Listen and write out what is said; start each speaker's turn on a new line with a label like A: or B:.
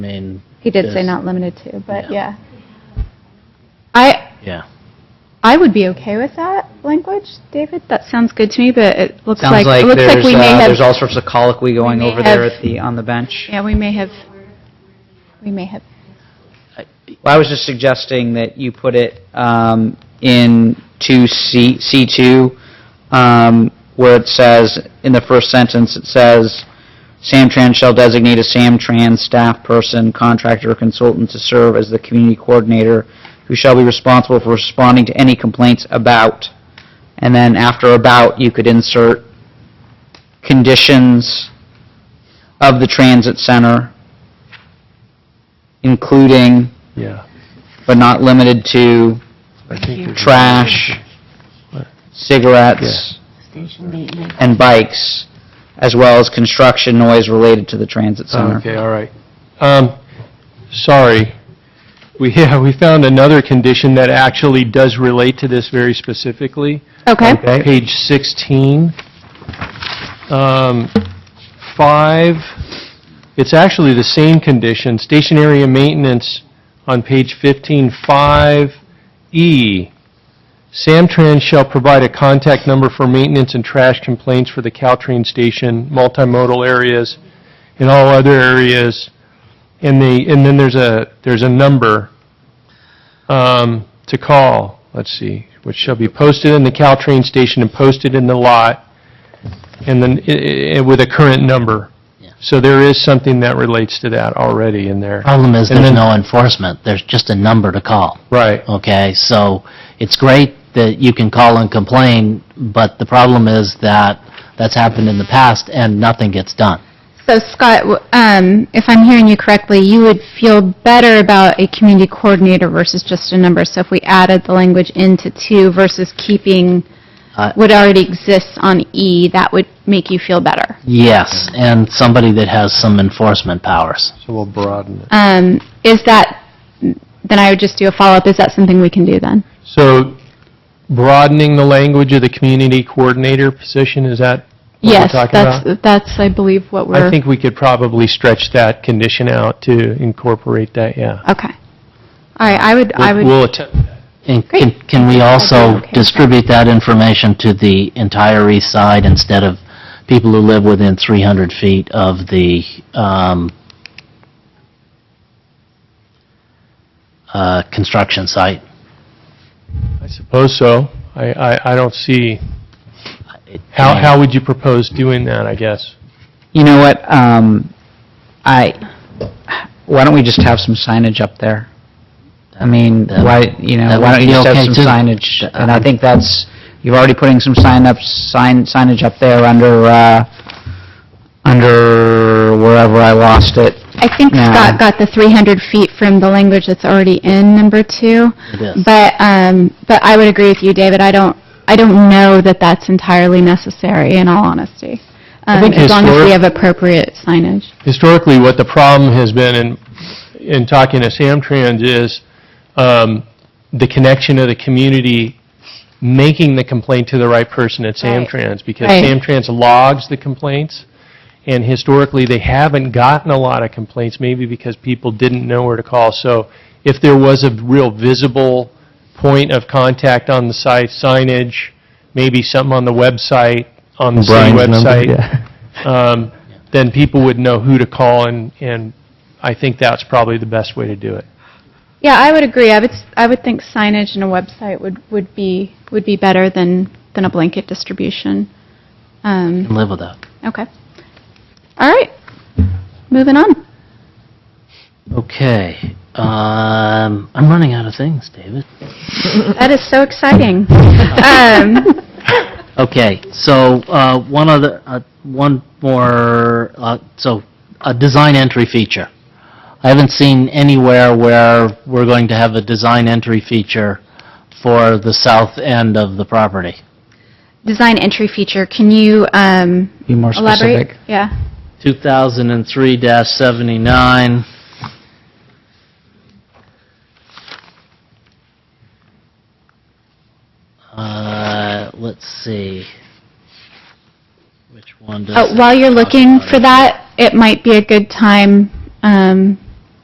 A: I mean,
B: He did say
A: Yes.
B: not limited to, but
A: Yeah.
B: yeah. I,
A: yeah.
B: I would be okay with that language, David. That sounds good to me, but it looks
C: Sounds
B: like,
C: like
B: it looks like
C: there's,
B: we may
C: uh, there's all
B: have,
C: sorts of colloquy going
B: may
C: over there
B: have-
C: at the, on the bench.
B: yeah, we may have, we may have,
C: Well, I was just suggesting that you put it um, in 2C, C2, um, where it says, in the first sentence, it says, "Samtrans shall designate a Samtrans staff person, contractor, or consultant to serve as the community coordinator, who shall be responsible for responding to any complaints about." And then after "about," you could insert conditions of the transit center, including
D: Yeah.
C: but not limited to
D: I think there's-
C: trash, cigarettes,
E: Station maintenance.
C: and bikes, as well as construction noise related to the transit
D: Oh,
C: center.
D: Okay, all right. Um, sorry. We, yeah, we found another condition that actually does relate to this very specifically.
B: okay.
D: Page 16. Um, five, it's actually the same condition, station area maintenance on page 15, 5E. Samtrans shall provide a contact number for maintenance and trash complaints for the Caltrain station, multimodal areas, and all other areas. And the, and then there's a, there's a number um, to call, let's see, which shall be posted in the Caltrain station and posted in the lot, and then, i- i- with a current number.
A: Yeah.
D: So there is something that relates to that already in there.
A: Problem is,
D: And
A: there's
D: then-
A: no enforcement. There's just a number to call,
D: Right,
A: okay? So it's great that you can call and complain, but the problem is that that's happened in the past and nothing gets done.
B: So Scott, w- um, if I'm hearing you correctly, you would feel better about a community coordinator versus just a number. So if we added the language into two versus keeping
A: Uh,
B: what already exists on E, that would make you feel better.
A: Yes, and somebody that has some enforcement powers.
D: so we'll broaden it.
B: Um, is that, then I would just do a follow-up, is that something we can do then?
D: So broadening the language of the community coordinator position, is that what we're
B: Yes,
D: talking
B: that's,
D: about?
B: that's, I believe, what
D: I
B: we're,
D: think we could probably stretch that condition out to incorporate that, yeah.
B: okay. All right, I would, I would,
D: We'll attempt that.
A: And can,
B: Great.
A: can we
B: I'd be
A: also
B: okay with that.
A: distribute that information to the entire east side instead of people who live within 300 feet of the, um, uh, construction site?
D: I suppose so. I, I, I don't see,
A: It-
D: how, how would you propose doing that, I guess?
C: You know what, um, I, why don't we just have some signage up there? I mean,
A: That-
C: why, you know,
A: that
C: why don't
A: would
C: you
A: be
C: just
A: okay
C: have some
A: too.
C: signage?
A: That-
C: And I think that's, you're already putting some sign up, sign, signage up there under, uh, under wherever I lost it.
B: I think
C: Yeah.
B: Scott got the 300 feet from the language that's already in number two.
A: It is.
B: But, um, but I would agree with you, David, I don't, I don't know that that's entirely necessary, in all honesty. Um,
D: think
B: as long as we
D: historic-
B: have appropriate signage.
D: historically, what the problem has been in, in talking to Samtrans is um, the connection of the community making the complaint to the right person at
B: Right.
D: Samtrans. Because
B: Right.
D: Samtrans logs the complaints, and historically, they haven't gotten a lot of complaints, maybe because people didn't know where to call. So if there was a real visible point of contact on the site, signage, maybe something on the website, on the city website um, then people would know who to call, and, and I think that's probably the best way to do it.
B: Yeah, I would agree. I would, s- I would think signage and a website would, would be, would be better than, than a blanket distribution. Um,
A: Can live with that.
B: okay. All right, moving on.
A: Okay, um, I'm running out of things, David.
B: That is so exciting. Um,
A: Okay, so, uh, one other, uh, one more, uh, so, a design entry feature. I haven't seen anywhere where we're going to have a design entry feature for the south end of the property.
B: Design entry feature, can you um,
C: Be more specific.
B: elaborate? Yeah.
A: 2003-79. Uh, let's see. Which one does?
B: Uh, While you're looking for that, it might be a good time um,